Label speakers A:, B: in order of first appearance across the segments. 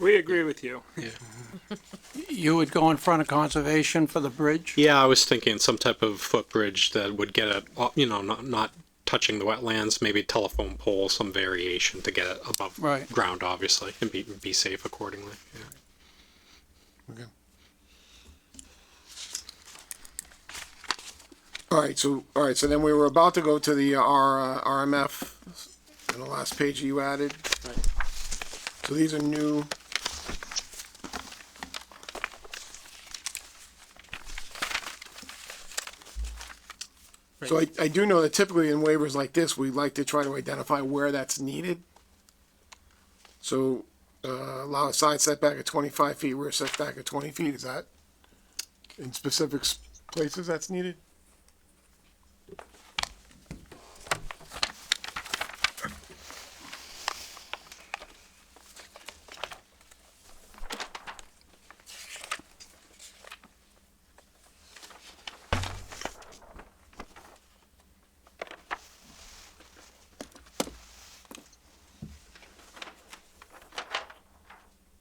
A: We agree with you.
B: You would go in front of conservation for the bridge?
C: Yeah, I was thinking some type of footbridge that would get it, uh, you know, not, not touching the wetlands, maybe telephone pole, some variation to get it above
B: Right.
C: ground, obviously, and be, be safe accordingly. Yeah.
D: Okay. All right, so, all right, so then we were about to go to the R, uh, RMF, and the last page you added. So these are new. So I, I do know that typically in waivers like this, we like to try to identify where that's needed. So uh, allow a side setback of twenty-five feet, rear setback of twenty feet, is that in specific s- places that's needed?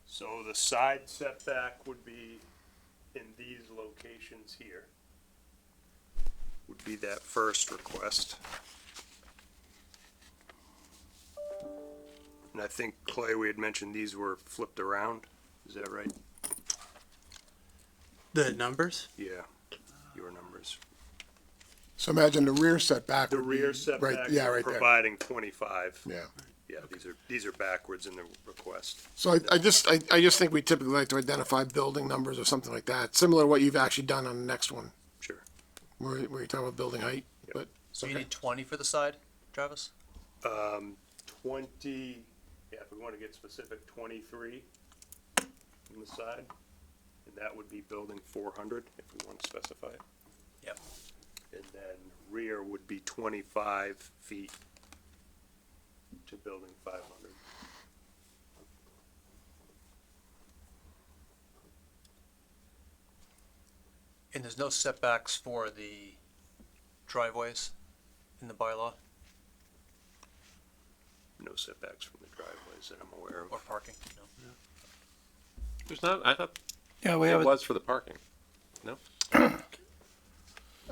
A: So the side setback would be in these locations here. Would be that first request. And I think Clay, we had mentioned these were flipped around, is that right?
E: The numbers?
A: Yeah, your numbers.
D: So imagine the rear setback.
A: The
D: would be
A: rear
D: Right, yeah,
A: setback,
D: right there,
A: providing twenty-five.
D: yeah.
A: Yeah, these are, these are backwards in the request.
D: So I, I just, I, I just think we typically like to identify building numbers or something like that, similar to what you've actually done on the next one.
A: Sure.
D: Where, where you're talking about building height, but,
F: So you
D: Okay.
F: need twenty for the side, Travis?
A: Um, twenty, yeah, if we wanna get specific, twenty-three on the side. And that would be building four hundred, if we wanna specify it.
F: Yep.
A: And then rear would be twenty-five feet to building five hundred.
F: And there's no setbacks for the driveways in the bylaw
A: No setbacks from the driveways that I'm aware
F: or
A: of.
F: parking, no?
G: There's not, I thought
B: Yeah, we
G: it
B: have, a-
G: was for the parking.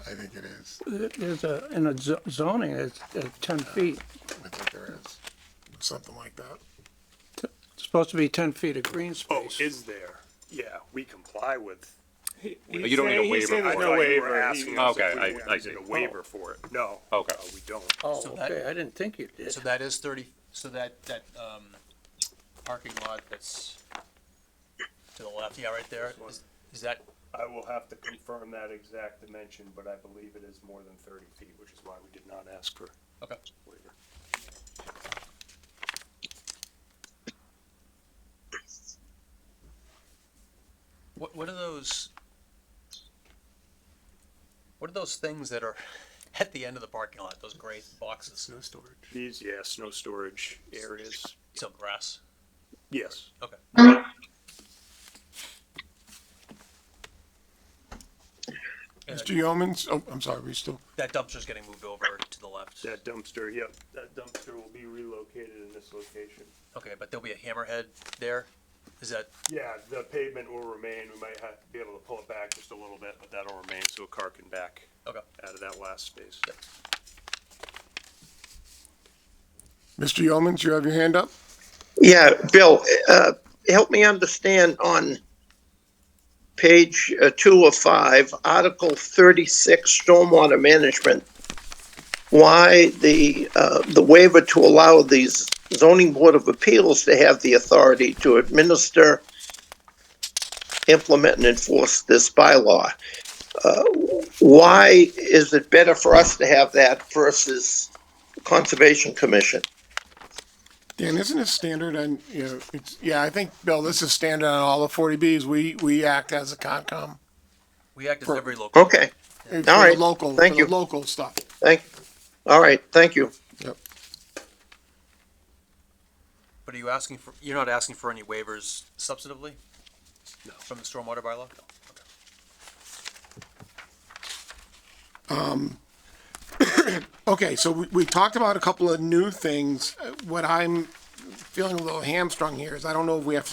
D: I think it is,
B: there's a, in a zo- zoning, it's, uh ten feet.
D: I think there is, something like that.
B: It's supposed to be ten feet of green
A: Oh,
B: space.
A: is there? Yeah, we comply with.
G: You don't need a waiver
A: I
G: for
A: know
G: it.
A: what you were asking us
G: Okay,
A: if we
G: I-
A: were
G: I
A: using
G: see.
A: A waiver for it. No.
G: Okay.
A: no, We don't.
B: Oh,
F: So that-
B: okay, I didn't think you did.
F: So that is thirty, so that, that, um, parking lot that's to the left, yeah, right there, is, is that,
A: I will have to confirm that exact dimension, but I believe it is more than thirty feet, which is why we did not ask for
F: okay.
A: waiver.
F: What, what are those? What are those things that are at the end of the parking lot, those gray boxes,
E: Snow storage.
A: These, yeah, snow storage areas,
F: so grass?
A: yes.
F: Okay. And
D: Mr. Yeomans, oh, I'm sorry, we still,
F: That dumpster's getting moved over to the left.
A: That dumpster, yep, that dumpster will be relocated in this location.
F: Okay, but there'll be a hammerhead there? Is that,
A: Yeah, the pavement will remain, we might have to be able to pull it back just a little bit, but that'll remain, so a car can back
F: okay,
A: out of that last space.
D: Mr. Yeomans, you have your hand up?
H: Yeah, Bill, uh, help me understand on page uh, two of five, Article thirty-six, Stormwater Management, why the, uh, the waiver to allow the zoning board of appeals to have the authority to administer, implement, and enforce this bylaw. Uh, Why is it better for us to have that versus Conservation Commission?
D: Dan, isn't it standard on, you know, it's, yeah, I think, Bill, this is standard on all the forty Bs. We, we act as a Concom.
F: we act as
D: For-
F: every local.
H: Okay,
D: For the
H: right.
D: Local, for
H: Thank
D: the
H: you.
D: local stuff.
H: thank, all right, thank you.
F: But are you asking for, you're not asking for any waivers substantively? No. From the stormwater bylaw?
D: Okay, so we, we talked about a couple of new things. Uh, What I'm feeling a little hamstrung here is I don't know if we have to